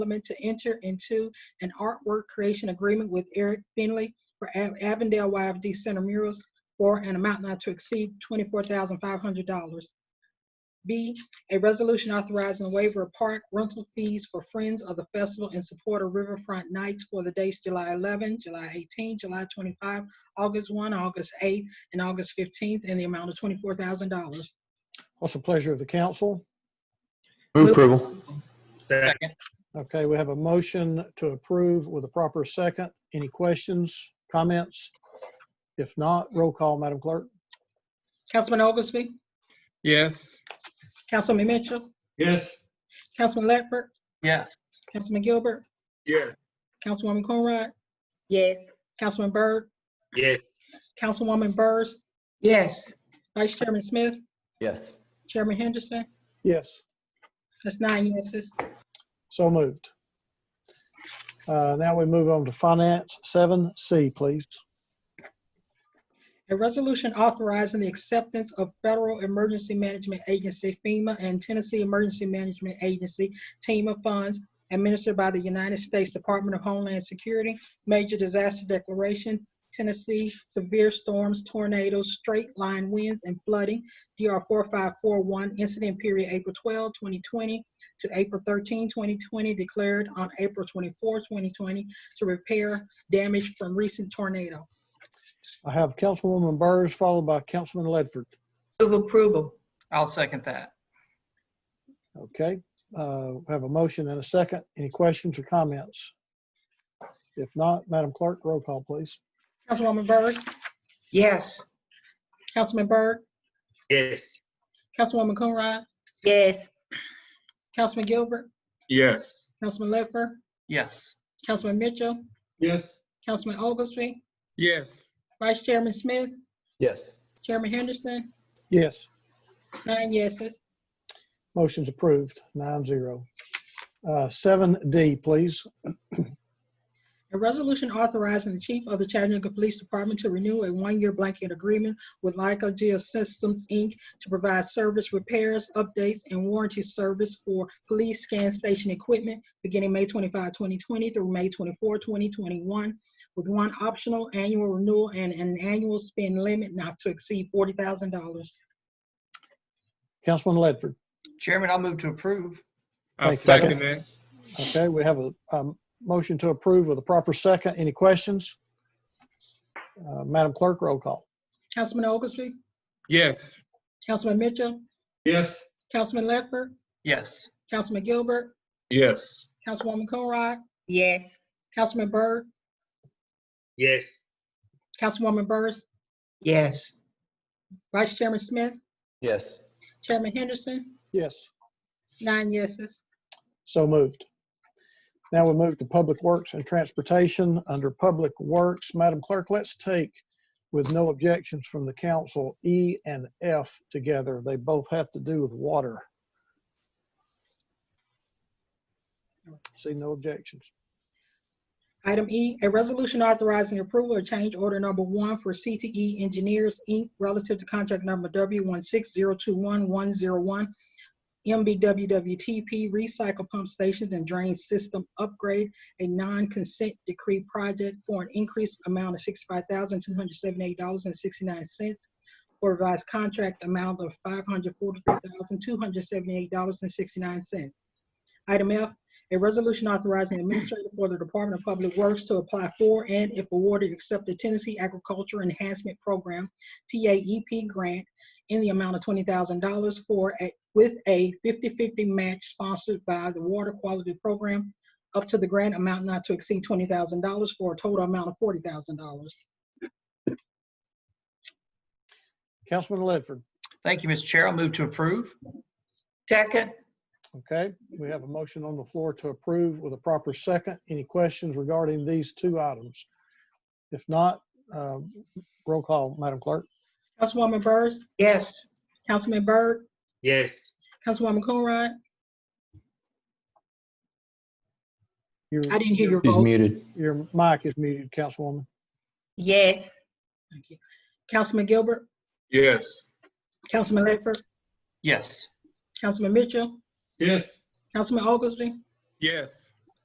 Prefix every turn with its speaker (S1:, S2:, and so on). S1: Development to enter into an artwork creation agreement with Eric Finley for Av- Avondale YFD Center murals for an amount not to exceed $24,500. B, a resolution authorizing the waiver of park rental fees for Friends of the Festival in support of Riverfront Nights for the dates July 11, July 18, July 25, August 1, August 8, and August 15th, in the amount of $24,000.
S2: What's the pleasure of the council?
S3: Move approval.
S4: Second.
S2: Okay, we have a motion to approve with a proper second. Any questions, comments? If not, roll call, Madam Clerk.
S1: Councilman Oglesby?
S4: Yes.
S1: Councilman Mitchell?
S3: Yes.
S1: Councilman Ledford?
S4: Yes.
S1: Councilman Gilbert?
S3: Yes.
S1: Councilwoman Coonrod?
S5: Yes.
S1: Councilman Byrd?
S4: Yes.
S1: Councilwoman Burrs?
S5: Yes.
S1: Vice Chairman Smith?
S3: Yes.
S1: Chairman Henderson?
S2: Yes,
S1: That's nine yeses.
S2: so moved. Uh, Now we move on to Finance 7C, please.
S1: A resolution authorizing the acceptance of Federal Emergency Management Agency FEMA and Tennessee Emergency Management Agency TEMA funds administered by the United States Department of Homeland Security, Major Disaster Declaration, Tennessee Severe Storms, Tornadoes, Straight Line Winds, and Flooding, DR 4541, incident period April 12, 2020 to April 13, 2020, declared on April 24, 2020, to repair damage from recent tornado.
S2: I have Councilwoman Burrs followed by Councilman Ledford.
S5: Move approval.
S4: I'll second that.
S2: Okay, uh, we have a motion and a second. Any questions or comments? If not, Madam Clerk, roll call, please.
S1: Councilwoman Byrd?
S5: Yes.
S1: Councilman Byrd,
S4: Yes.
S1: Councilwoman Coonrod,
S5: Yes.
S1: Councilman Gilbert,
S3: Yes.
S1: Councilman Ledford,
S4: Yes.
S1: Councilman Mitchell,
S3: Yes.
S1: Councilman Oglesby,
S4: Yes.
S1: Vice Chairman Smith,
S3: Yes.
S1: Chairman Henderson,
S2: Yes.
S1: nine yeses.
S2: Motion's approved, nine zero. Uh, Seven D, please.
S1: A resolution authorizing the chief of the Chattanooga Police Department to renew a one-year blanket agreement with Leica Geosystems, Inc. to provide service repairs, updates, and warranty service for police scan station equipment beginning May 25, 2020 through May 24, 2021, with one optional annual renewal and an annual spend limit not to exceed $40,000.
S2: Councilman Ledford.
S4: Chairman, I'll move to approve.
S2: Thank
S6: I'll
S2: you.
S6: second that.
S2: Okay, we have a um, motion to approve with a proper second. Any questions? Uh, Madam Clerk, roll call.
S1: Councilman Oglesby,
S6: Yes.
S1: Councilman Mitchell,
S3: Yes.
S1: Councilman Ledford,
S4: Yes.
S1: Councilman Gilbert,
S3: Yes.
S1: Councilwoman Coonrod,
S5: Yes.
S1: Councilman Byrd,
S4: Yes.
S1: Councilwoman Burrs,
S5: Yes.
S1: Vice Chairman Smith,
S3: Yes.
S1: Chairman Henderson,
S2: Yes,
S1: nine yeses.
S2: so moved. Now we move to Public Works and Transportation. Under Public Works, Madam Clerk, let's take, with no objections from the council, E and F together. They both have to do with water. See no objections.
S1: Item E, a resolution authorizing approval of change order number one for CTE Engineers, Inc. relative to contract number W one six zero two one one zero one MBWWTP Recycle Pump Stations and Drain System Upgrade, a non-consent decree project for an increased amount of sixty-five thousand two hundred seventy-eight dollars and sixty-nine cents for revised contract amount of five hundred forty-three thousand two hundred seventy-eight dollars and sixty-nine cents. Item F, a resolution authorizing the administrator for the Department of Public Works to apply for and if awarded, accept the Tennessee Agriculture Enhancement Program, TAEP grant in the amount of twenty thousand dollars for, a- with a 50-50 match sponsored by the Water Quality Program up to the grant amount not to exceed twenty thousand dollars for a total amount of forty thousand dollars.
S2: Councilman Ledford.
S4: Thank you, Mr. Chair. I'll move to approve.
S5: Second.
S2: Okay, we have a motion on the floor to approve with a proper second. Any questions regarding these two items? If not, uh, roll call, Madam Clerk.
S1: Councilwoman Burrs,
S5: Yes.
S1: Councilman Byrd,
S4: Yes.
S1: Councilwoman Coonrod,
S2: Your-
S1: I didn't hear your
S3: He's
S1: vote.
S3: muted.
S2: Your mic is muted, Councilwoman.
S5: Yes.
S1: Thank you. Councilman Gilbert,
S6: Yes.
S1: Councilman Ledford,
S4: Yes.
S1: Councilman Mitchell,
S6: Yes.
S1: Councilman Oglesby,
S6: Yes.